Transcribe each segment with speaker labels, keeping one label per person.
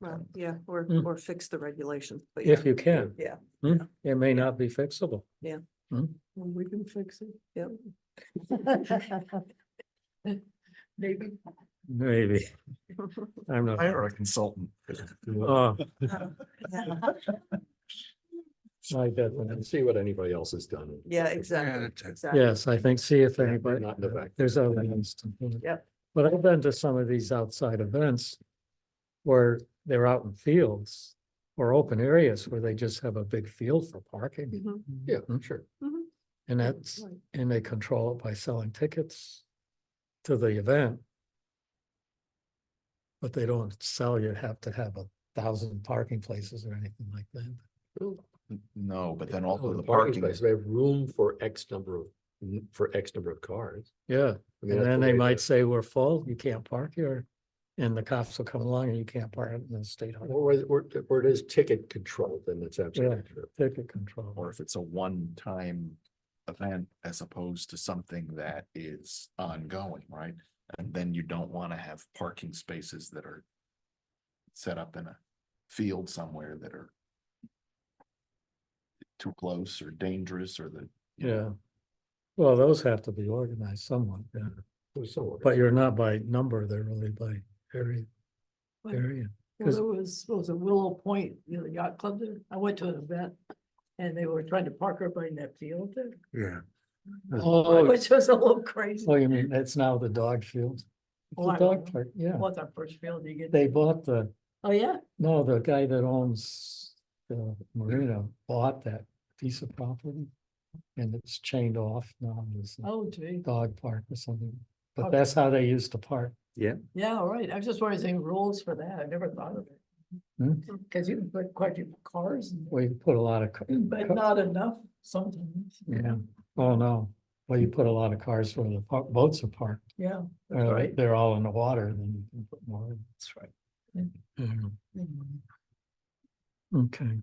Speaker 1: Well, yeah, or,
Speaker 2: Mm.
Speaker 1: or fix the regulations. but yeah.
Speaker 2: if you can.
Speaker 1: Yeah.
Speaker 2: Hmm? It may not be fixable.
Speaker 1: Well, We can fix it, yeah.
Speaker 3: Maybe.
Speaker 2: Maybe. I'm not.
Speaker 4: Hire a consultant.
Speaker 2: Oh, I
Speaker 5: And
Speaker 2: definitely.
Speaker 5: see what anybody else has done.
Speaker 1: Yeah, exactly,
Speaker 4: that's it.
Speaker 1: exactly.
Speaker 2: Yes, I think, see if anybody,
Speaker 5: Not in the back.
Speaker 2: there's other ones.
Speaker 1: Yep.
Speaker 2: But I've been to some of these outside events where they're out in fields or open areas where they just have a big field for parking.
Speaker 3: Mm-hmm.
Speaker 1: Mhm,
Speaker 5: Yeah,
Speaker 2: Hmm?
Speaker 5: sure.
Speaker 1: mhm.
Speaker 2: And
Speaker 1: Yeah,
Speaker 2: that's,
Speaker 1: right.
Speaker 2: and they control it by selling tickets to the event. But they don't sell you have to have a thousand parking places or anything like that.
Speaker 4: No, but then also
Speaker 5: Oh,
Speaker 4: the parking
Speaker 5: space,
Speaker 4: is,
Speaker 5: They have room for X number of, for X number of cars.
Speaker 2: Yeah,
Speaker 5: I
Speaker 2: and
Speaker 5: mean, that's
Speaker 2: then
Speaker 5: the
Speaker 2: they
Speaker 5: way
Speaker 2: might
Speaker 5: the-
Speaker 2: say we're full, you can't park here. And the cops will come along and you can't park in the state highway,
Speaker 5: Where, where, where it is ticket controlled, then that's absolutely true.
Speaker 2: ticket control.
Speaker 4: or if it's a one-time event as opposed to something that is ongoing, right? And then you don't want to have parking spaces that are set up in a field somewhere that are too close or dangerous or the, you know,
Speaker 2: Yeah. Well, those have to be organized somewhat, yeah.
Speaker 5: It was somewhat-
Speaker 2: But you're not by number, they're really by area,
Speaker 3: Well,
Speaker 2: area.
Speaker 3: Well, there was, there was a Willow Point, you know, yacht club there. I went to an event and they were trying to park everybody in that field there,
Speaker 2: Oh,
Speaker 3: which was a little crazy.
Speaker 2: oh, you mean, that's now the dog field? It's
Speaker 3: Oh,
Speaker 2: a
Speaker 3: I
Speaker 2: dog
Speaker 3: know.
Speaker 2: park, yeah.
Speaker 3: What's our first field you get?
Speaker 2: They bought the,
Speaker 3: Oh, yeah?
Speaker 2: no, the guy that owns the marina bought that piece of property. And it's chained off now, there's a
Speaker 3: Oh, gee.
Speaker 2: dog park or something, but
Speaker 3: Okay.
Speaker 2: that's how they used to park.
Speaker 3: Yeah, all right. I was just wondering, is there any rules for that? I never thought of it.
Speaker 2: Hmm.
Speaker 3: Cause you can put quite a few cars, in there,
Speaker 2: Well, you put a lot of, ca-
Speaker 3: but not enough sometimes.
Speaker 2: yeah, oh no, well, you put a lot of cars where the par- boats are parked.
Speaker 3: Yeah. that's
Speaker 2: Uh,
Speaker 3: right.
Speaker 2: they're all in the water, then you can put more. in.
Speaker 3: That's right.
Speaker 2: Mhm.
Speaker 3: Mhm.
Speaker 2: Okay.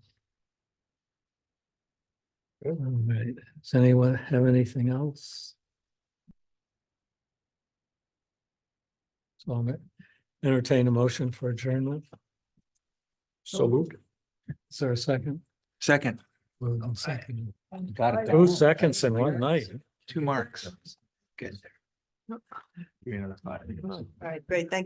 Speaker 2: All right, does anyone have anything else? So I'll entertain a motion for adjournment.
Speaker 5: So moved.
Speaker 2: Is there a second?
Speaker 4: Second,
Speaker 2: Moved and seconded.
Speaker 3: And
Speaker 4: Got it
Speaker 3: I-
Speaker 4: down.
Speaker 2: Two seconds in one night.
Speaker 4: two marks. Good.
Speaker 1: All right, great, thank you.